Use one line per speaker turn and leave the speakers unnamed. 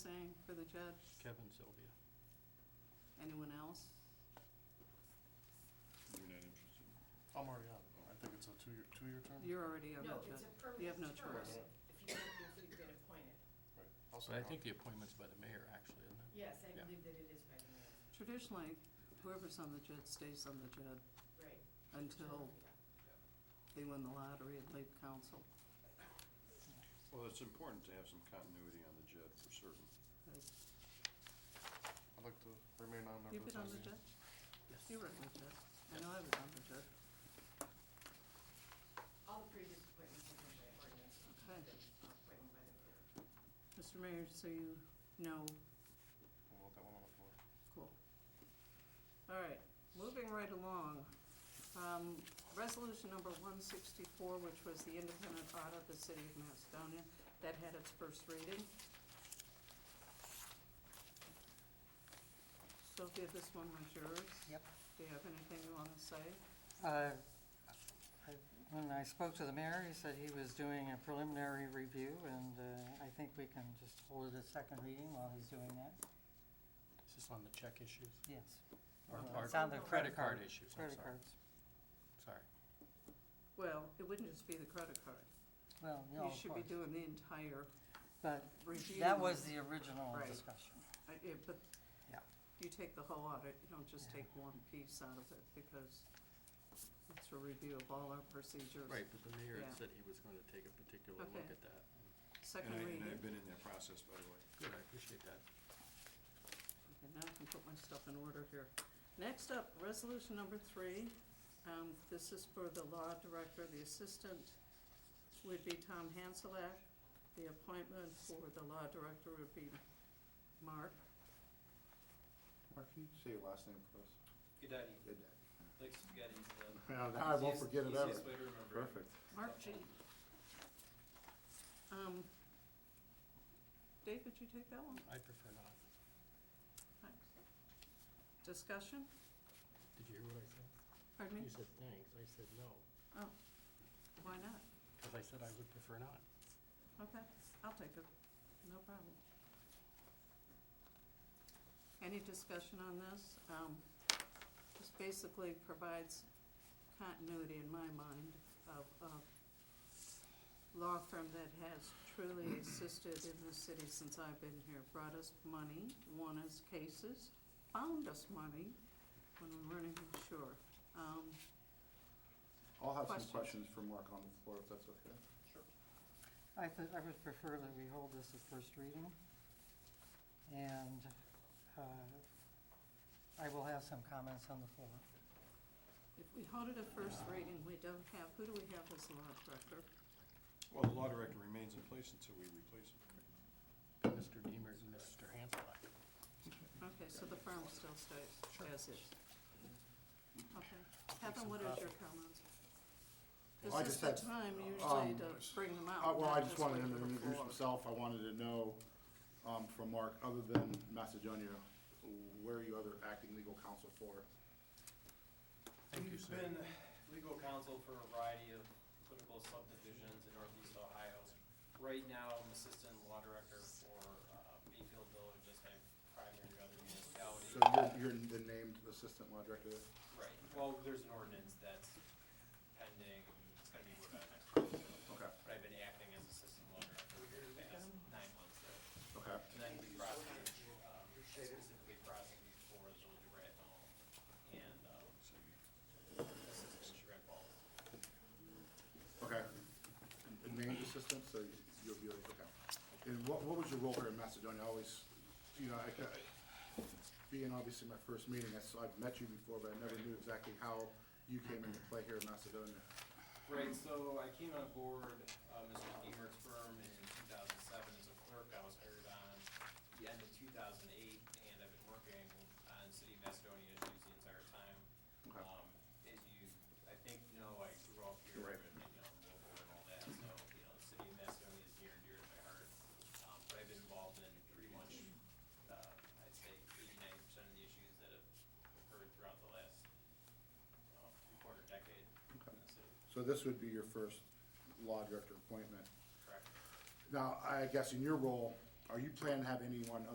for the judge?
Kevin, Sylvia.
Anyone else?
You're not interested?
I'm already on it. I think it's a two-year, two-year term.
You're already on
No,
that
it's a
judge.
permanent
You have no
term
choice.
If you get, if you get appointed.
Right. I'll
But I
second
think the
that.
appointment's by the mayor, actually, isn't it?
Yes, I
Yeah.
believe that it is by the mayor.
Traditionally, whoever's on the judge stays on the judge
Right.
until they win the lottery and leave council.
Well, it's important to have some continuity on the JED for certain.
I'd like to remain on there
You've
for the
been on
time
the
being.
judge? You were on the judge. I know I was on the judge.
All the previous appointments have been by ordinance.
Okay.
Been appointed by the mayor.
Mr. Mayor, so you know,
We'll let that one on the floor.
cool. All right, moving right along. Um, Resolution number one sixty-four, which was the independent audit of the city of Macedonia, that had its first reading. Sophia, this one was yours.
Yep.
Do you have anything you want to say?
Uh, I- When I spoke to the mayor, he said he was doing a preliminary review, and uh, I think we can just hold it a second reading while he's doing that.
Is this on the check issues?
Yes.
Or
Uh,
card-
it's on the
Credit card issues, I'm
Credit
sorry.
cards.
Sorry.
Well, it wouldn't just be the credit card.
Well, no,
You
of
should be
course.
doing the entire
But
review.
that was the original
Right.
discussion.
I- yeah, But
Yeah.
you take the whole audit, you don't just
Yeah.
take one piece out of it, because it's a review of all our procedures.
Right, but the mayor had
Yeah.
said he was going to take a particular look
Okay.
at that.
Second
And I-
reading,
And I've
okay,
been in that process, by the way.
Good, I appreciate that.
now I can put my stuff in order here. Next up, resolution number three, um, this is for the law director, the assistant would be Tom Hanselak. The appointment for the law director would be Mark.
Mark, can you say your last name for us?
Gudati,
Good.
Lake Gudati is the
I won't forget it ever.
easiest way to remember. it.
Perfect.
Mark G. Um, Dave, would you take that one?
I prefer not.
Thanks. Discussion?
Did you hear what I said?
Pardon me?
You said thanks, I said no,
Why not?
because I said I would prefer not.
Okay, I'll take it. No problem. Any discussion on this? Um, this basically provides continuity in my mind of a law firm that has truly assisted in the city since I've been here, brought us money, won us cases, found us money when we weren't even sure. Um,
I'll have some
Questions?
questions for Mark on the floor, if that's okay.
I thi- I would prefer that we hold this as first reading. And uh, I will have some comments on the floor.
if we hold it at first reading, we don't have, who do we have as law director?
Well, the law director remains in place until we replace him.
Mr. Deemer and Mr. Hanselak.
Okay, so the firm still stays as is. Okay.
some
Kevin, what is your
coffee.
comments?
Well, I
This is the
just had,
time usually
um,
to bring them out.
Uh, Well,
not
I just wanted
wait
him to
for the
introduce
floor.
himself. I wanted to know um, from Mark, other than Macedonia, where are you other acting legal counsel for?
Thank you,
We've
sir.
been legal counsel for a variety of political subdivisions in northeast Ohio. Right now, I'm assistant law director for uh, Mayfield Village, just my primary other
So
municipality.
you're, you're the named assistant law director there?
Right, well, there's an ordinance that's pending, it's gonna be voted on next month.
Okay,
But I've been acting as assistant law director for the past nine months there.
okay.
And then we prosecute, um, specifically prosecute for the village of Raton and, um, uh, assistant sheriff Ball.
Okay. And- and Named assistant, so you'll be, okay. And what, what was your role here in Macedonia? I always, you know, I, I- being obviously my first meeting, I s- I've met you before, but I never knew exactly how you came into play here in Macedonia.
Right, so I came on board, uh, Mr. Deemer's firm in two thousand seven as a clerk. I was hired on the end of two thousand eight, and I've been working on city of Macedonia issues the entire time.
Okay.
Um, as you, I think, you know, I grew up here,
Right.
and, you know, local and all that, so, you know, the city of Macedonia is near and dear to my heart. Um, but I've been involved in pretty much, uh, I'd say eighty-nine percent of the issues that have occurred throughout the last, uh, quarter decade in the city,
So this would be your first law director appointment.
correct?
Now, I guess in your role, are you planning to have anyone